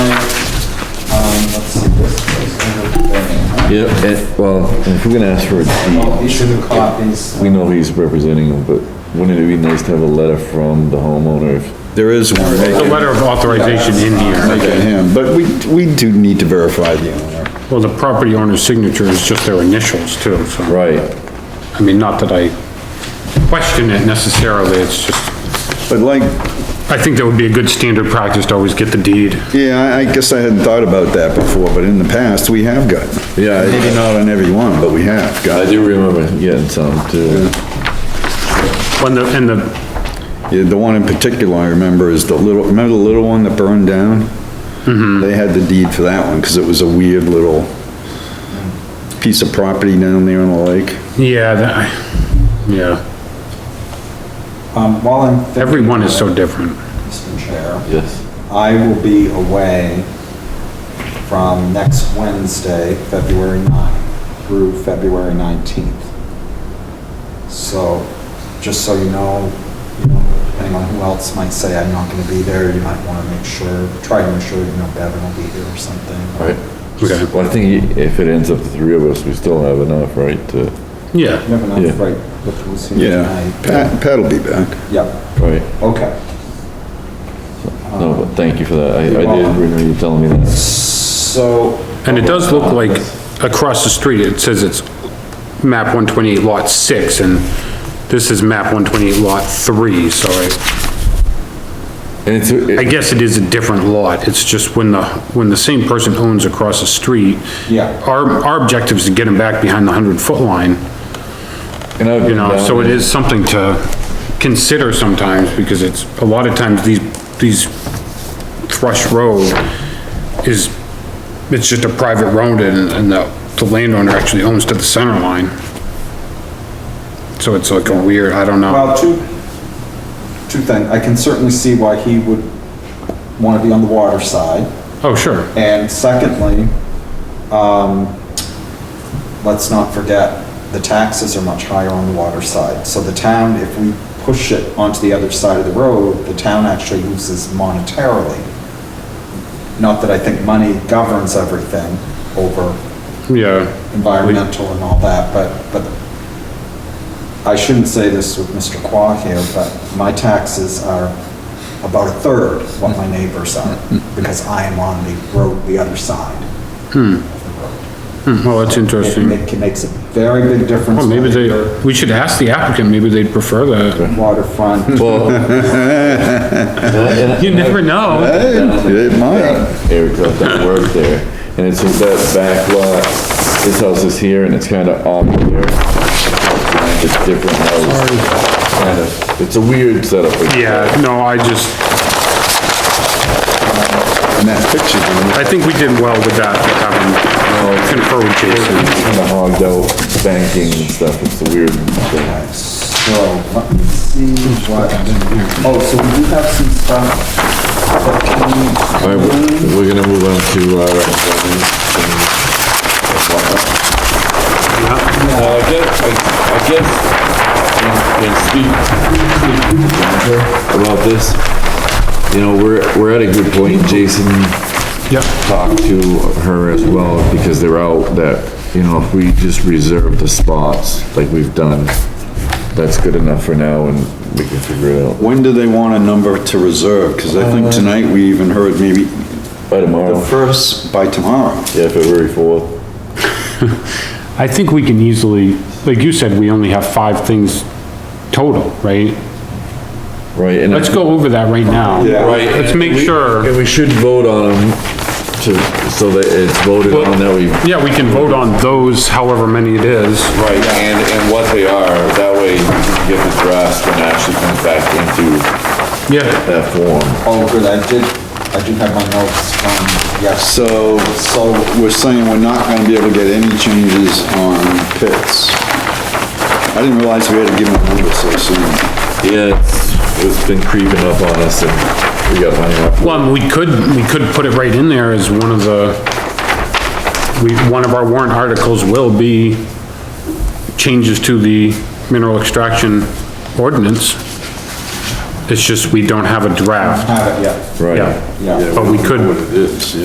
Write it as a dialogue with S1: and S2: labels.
S1: Yeah, and- well, if we're gonna ask for a deed,
S2: These are the copies.
S1: we know he's representing him, but wouldn't it be nice to have a letter from the homeowner? if- There is one.
S3: The letter of authorization in here.
S4: Look at him, but we, we do need to verify the owner.
S3: Well, the property owner's signature is just their initials too, so.
S1: Right.
S3: I mean, not that I question it necessarily, it's just,
S4: But like,
S3: I think that would be a good standard practice to always get the deed.
S4: yeah, I I guess I hadn't thought about that before, but in the past, we have got.
S1: Yeah, I-
S4: Maybe not on every one, but we have
S1: I
S4: got.
S1: do remember getting some too.
S3: When the, and the,
S4: Yeah, The one in particular I remember is the little, remember the little one that burned down?
S1: Mm-hmm.
S4: They had the deed for that one, because it was a weird little piece of property down there on the lake.
S3: yeah, that, yeah,
S2: Um, while I'm. thinking
S3: everyone is
S2: about
S3: so different.
S2: it, Mr. Chair,
S1: Yes.
S2: I will be away from next Wednesday, February 9, through February 19th. So, just so you know, you know, depending on who else might say I'm not gonna be there, you might wanna make sure, try to make sure, you know, Bevan will be here or something.
S1: Right.
S3: Okay.
S1: Well, I think if it ends up the three of us, we still have enough, right, to,
S3: Yeah,
S2: Never know,
S1: Yeah.
S2: right, what was here
S4: Yeah,
S2: tonight.
S4: Pat, Pat'll be back.
S2: Yep,
S1: right?
S2: okay.
S1: No, but thank you for that. I, I did remember you telling me that.
S2: So,
S3: and it does look like across the street, it says it's map 128 lot 6, and this is map 128 lot 3, so I,
S1: And it's,
S3: I
S1: it-
S3: guess it is a different lot, it's just when the, when the same person owns across the street.
S2: Yeah.
S3: Our, our objective is to get them back behind the 100-foot line,
S1: and I've.
S3: you know,
S1: been
S3: so it
S1: down-
S3: is something to consider sometimes, because it's, a lot of times, these, these Thrush Road is, it's just a private road, and, and the, the landowner actually owns to the center line. So it's like a weird, I don't know,
S2: Well, two, two things. I can certainly see why he would want to be on the water side.
S3: oh, sure,
S2: And secondly, um, let's not forget, the taxes are much higher on the water side. So the town, if we push it onto the other side of the road, the town actually loses monetarily. Not that I think money governs everything over
S3: yeah.
S2: environmental and all that, but, but I shouldn't say this with Mr. Qua here, but my taxes are about a third what my neighbors are, because I am on the road, the other side.
S3: Hmm, Well, that's
S2: It
S3: interesting.
S2: ma- it makes a very big difference.
S3: Well, maybe
S2: whether
S3: they,
S2: you're
S3: we should ask the applicant, maybe they'd prefer that.
S2: Waterfront,
S1: Well. and I-
S3: You never know.
S4: Hey, it might.
S1: Eric left that work there, and it's just that back lot, his house is here, and it's kinda off here. It's different house. Kind of, it's a weird setup. like-
S3: Yeah, no, I just,
S4: And that picture's in
S3: I think we did well with that, having confer with Jason.
S1: Kinda hogged out banking and stuff, it's a weird thing.
S2: so let me see what, oh, so we do have some stuff that
S1: All
S2: can,
S1: right, we're we're gonna move on to, uh, Now, Uh, I guess, I I guess, and- and speak about this, you know, we're, we're at a good point, Jason
S3: Yeah.
S1: talked to her as well, because they're out, that, you know, if we just reserve the spots, like we've done, that's good enough for now, and we can figure it out
S4: When do they want a number to reserve? Because I think tonight we even heard maybe
S1: by
S4: the
S1: tomorrow,
S4: first by tomorrow.
S1: yeah, February fourth.
S3: I think we can easily, like you said, we only have five things total, right?
S1: Right, and.
S3: Let's go over that right now.
S2: Yeah.
S1: Right.
S3: Let's make
S1: and we-
S3: sure,
S1: And we should vote on them to, so that it's voted on that we.
S3: yeah, we can vote on those however many it is.
S1: Right, and, and what they are, that way you can get the draft when it actually comes back into
S3: Yeah,
S1: that form.
S2: oh, good, I did, I do have my notes from, yes,
S4: So
S2: so
S4: we're saying we're not gonna be able to get any changes on pits. I didn't realize we had to give them a number so soon.
S1: Yeah, it's, it's been creeping up on us and we got hung up.
S3: well, we could, we could put it right in there as one of the, we, one of our warrant articles will be changes to the mineral extraction ordinance. It's just we don't have a draft.
S2: have it yet.
S1: Right.
S3: Yeah,
S2: Yeah.
S3: but we could
S4: It is, yeah.